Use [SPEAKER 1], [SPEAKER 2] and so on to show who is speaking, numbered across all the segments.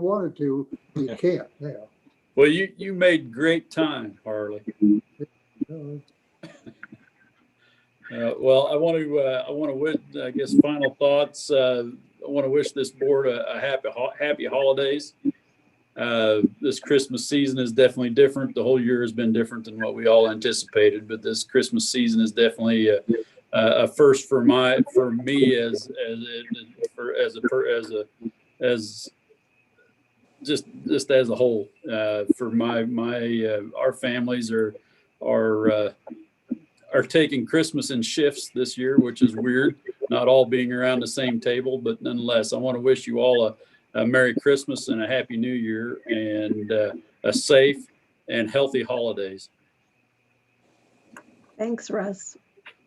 [SPEAKER 1] wanted to, you can't now.
[SPEAKER 2] Well, you, you made great time, Harley.
[SPEAKER 1] No,
[SPEAKER 2] Uh, well, I want to, uh, I want to, win, I guess, final thoughts. Uh, I want to wish this board a, a happy, ho- happy holidays. Uh, this Christmas season is definitely different. The whole year has been different than what we all anticipated, but this Christmas season is definitely a, a first for my, for me as, as, for, as a, per- as a, as just, just as a whole, uh, for my, my, uh, our families are, are, uh, are taking Christmas in shifts this year, which is weird, not all being around the same table, but nonetheless, I want to wish you all a, a Merry Christmas and a Happy New Year and uh, a safe and healthy holidays.
[SPEAKER 3] Thanks, Russ.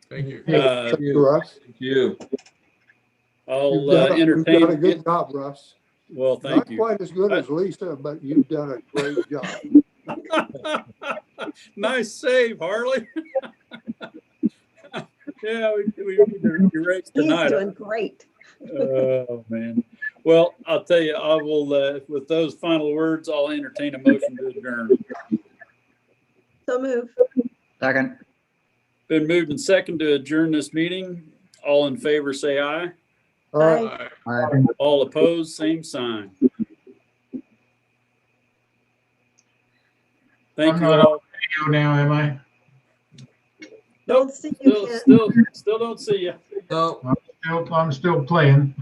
[SPEAKER 4] Thank you.
[SPEAKER 2] Uh,
[SPEAKER 1] Thank you, Russ.
[SPEAKER 5] Thank you.
[SPEAKER 2] I'll
[SPEAKER 1] You've
[SPEAKER 2] uh,
[SPEAKER 1] done a- you've done a
[SPEAKER 2] entertain,
[SPEAKER 1] good job, Russ.
[SPEAKER 2] well,
[SPEAKER 1] Not
[SPEAKER 2] thank you.
[SPEAKER 1] quite as good as Lisa, but you've done a great job.
[SPEAKER 2] Nice save, Harley. Yeah, we, we, we raced
[SPEAKER 3] He's
[SPEAKER 2] tonight.
[SPEAKER 3] doing great.
[SPEAKER 2] Oh, man. Well, I'll tell you, I will, uh, with those final words, I'll entertain a motion to adjourn.
[SPEAKER 3] So move.
[SPEAKER 6] Second.
[SPEAKER 2] Been moved and second to adjourn this meeting. All in favor, say aye.
[SPEAKER 1] All right,
[SPEAKER 4] Bye.
[SPEAKER 6] Aye.
[SPEAKER 2] All opposed, same sign. Thank you all.
[SPEAKER 7] video now, am I?
[SPEAKER 3] Don't see you,
[SPEAKER 2] Still,
[SPEAKER 3] Kent.
[SPEAKER 2] still, still don't see you.
[SPEAKER 4] No.
[SPEAKER 7] Nope, I'm still playing.